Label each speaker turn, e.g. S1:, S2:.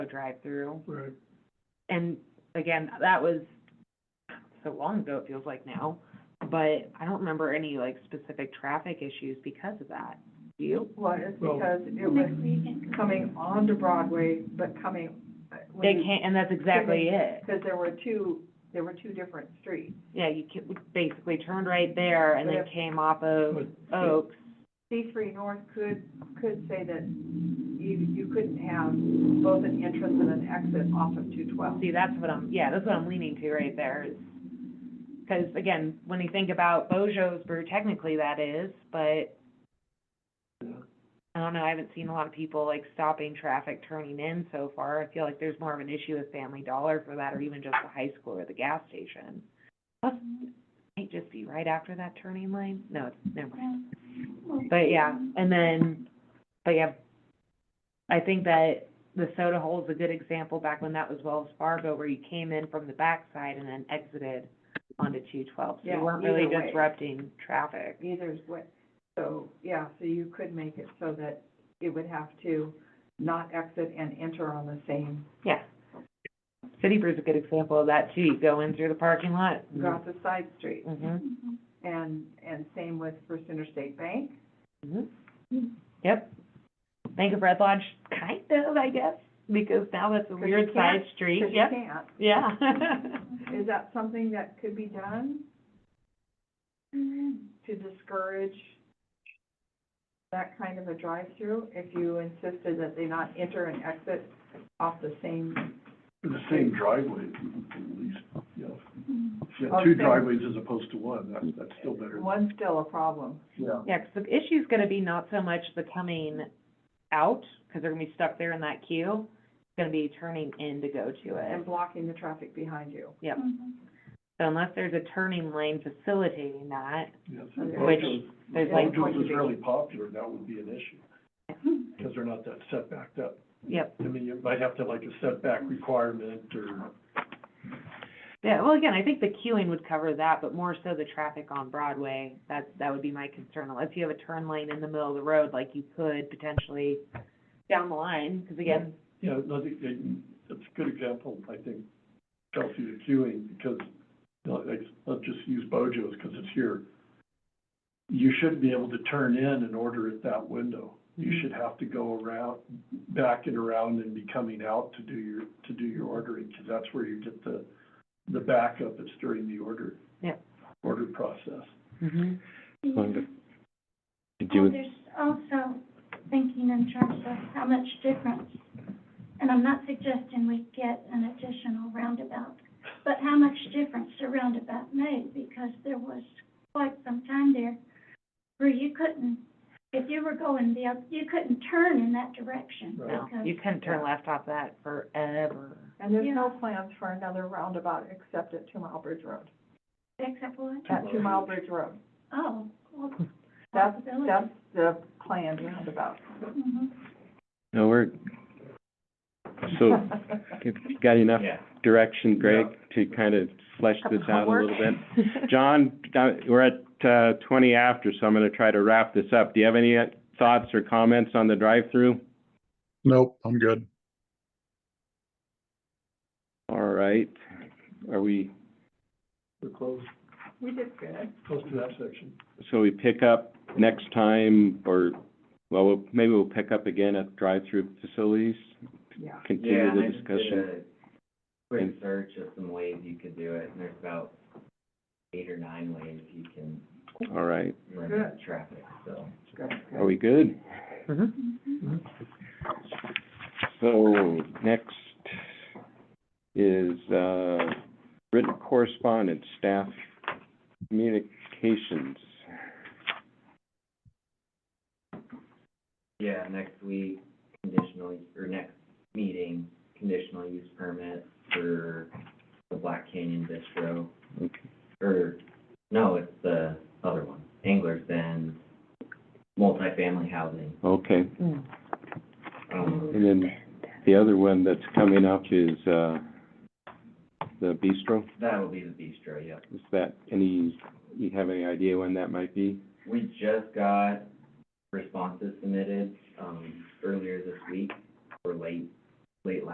S1: drive-through.
S2: Right.
S1: And again, that was so long ago, it feels like now, but I don't remember any like specific traffic issues because of that. Do you?
S3: was
S2: Well-
S3: because it was coming onto Broadway, but coming. uh, when
S1: They
S3: you-
S1: can't, and that's exactly it.
S3: Because there were two, there were two different streets.
S1: Yeah, you ca- we basically turned right there and then
S3: But if-
S1: came off of
S2: But-
S1: Oaks.
S3: C three north could, could say that you, you couldn't have both an entrance and an exit off of two twelve.
S1: See, that's what I'm, yeah, that's what I'm leaning to right there is, because again, when you think about Bojo's Brew, technically that is, but
S2: Yeah.
S1: I don't know, I haven't seen a lot of people like stopping traffic turning in so far. I feel like there's more of an issue with Family Dollar for that or even just the high school or the gas station. Plus, it might just be right after that turning lane. No, it's, never mind. But yeah, and then, but yeah, I think that the soda hole is a good example back when that was Wells Fargo, where you came in from the backside and then exited onto two twelve. So you
S3: Yeah,
S1: weren't really
S3: either way.
S1: disrupting traffic.
S3: Either is what, so, yeah, so you could make it so that it would have to not exit and enter on the same,
S1: Yeah. City Brew's a good example of that too. You go in through the parking lot.
S3: go out the side street.
S1: Mm-hmm,
S3: And, and same with First Interstate Bank.
S1: mm-hmm. Yep. Bank of Red Lodge, kind of, I guess, because now that's a
S3: you
S1: weird side
S3: can't-
S1: street.
S3: 'cause you
S1: Yep,
S3: can't.
S1: yeah.
S3: Is that something that could be done to discourage that kind of a drive-through? If you insisted that they not enter and exit off the same,
S2: The same driveway, at least, yeah. If you have
S3: Oh,
S2: two
S3: same.
S2: driveways as opposed to one, that's, that's still better,
S3: one's still a problem.
S2: yeah.
S1: Yeah, 'cause the issue's gonna be not so much the coming out, 'cause they're gonna be stuck there in that queue. It's gonna be turning in to go to
S3: And
S1: it.
S3: blocking the traffic behind you. Mm-hmm.
S1: Yep. So unless there's a turning lane facilitating that,
S2: yeah.
S3: Which
S1: there's
S2: If
S1: like-
S2: Bojo's is really popular, that would be an issue, because they're not that setback up.
S1: yep.
S2: I mean, you might have to like a setback requirement or,
S1: Yeah, well, again, I think the queuing would cover that, but more so the traffic on Broadway, that, that would be my concern. Unless you have a turn lane in the middle of the road, like you could potentially down the line, 'cause again,
S2: yeah, no, it- it- it's a good example, I think, Chelsea, the queuing, because, you know, like, let's just use Bojo's, because it's here. You should be able to turn in and order at that window. You
S1: Mhm.
S2: should have to go around, back and around and be coming out to do your, to do your ordering, because that's where you get the, the backup, it's during the order.
S1: Yeah.
S2: Order process.
S4: Mm-hmm.
S1: Mhm.
S4: Going to- to do
S5: Well,
S4: with,
S5: Mm-hmm. Oh, there's also thinking in terms of how much difference, and I'm not suggesting we get an additional roundabout, but how much difference the roundabout made, because there was quite some time there where you couldn't, if you were going the, oth- you couldn't turn in that direction.
S2: Right.
S1: no, you
S5: because-
S1: couldn't turn left off that forever.
S3: And there's no
S5: Yeah.
S3: plans for another roundabout except at Two Mile Bridge Road,
S5: Except what?
S3: at Two Mile Bridge Road.
S5: Oh, well,
S3: That's,
S5: possibility.
S3: that's the planned roundabout.
S5: Mhm.
S4: no, we're, so, if you got enough direction, Greg, to kind of flesh
S1: Couple
S4: this out a little bit?
S1: homework.
S4: John, uh, we're at, uh, twenty after, so I'm gonna try to wrap this up. Do you have any uh, thoughts or comments on the drive-through?
S6: Nope, I'm good.
S4: All right, are we,
S2: We're close,
S3: We did good.
S2: close to that section.
S4: so we pick up next time, or, well, we'll- maybe we'll pick up again at drive-through facilities?
S3: Yeah.
S7: Yeah,
S4: Continue
S7: and I
S4: the
S7: just
S4: discussion?
S7: did a Quick
S4: And-
S7: search of some ways you could do it, and there's about eight or nine ways you can
S4: All right,
S7: limit traffic, so.
S4: are we good?
S1: Mhm.
S5: Mm-hmm.
S4: So, next is, uh, written correspondence, staff communications.
S7: Yeah, next week, conditional, or next meeting, conditional use permit for the Black Canyon Bistro.
S4: Okay.
S7: Or, no, it's the other one, Anglers Bend, multifamily housing.
S4: Okay,
S1: Mm.
S7: Um,
S4: and then the other one that's coming up is, uh, the bistro.
S7: that'll be the bistro, yep.
S4: Is that, any, you have any idea when that might be?
S7: We just got responses submitted, um, earlier this week, or late, late last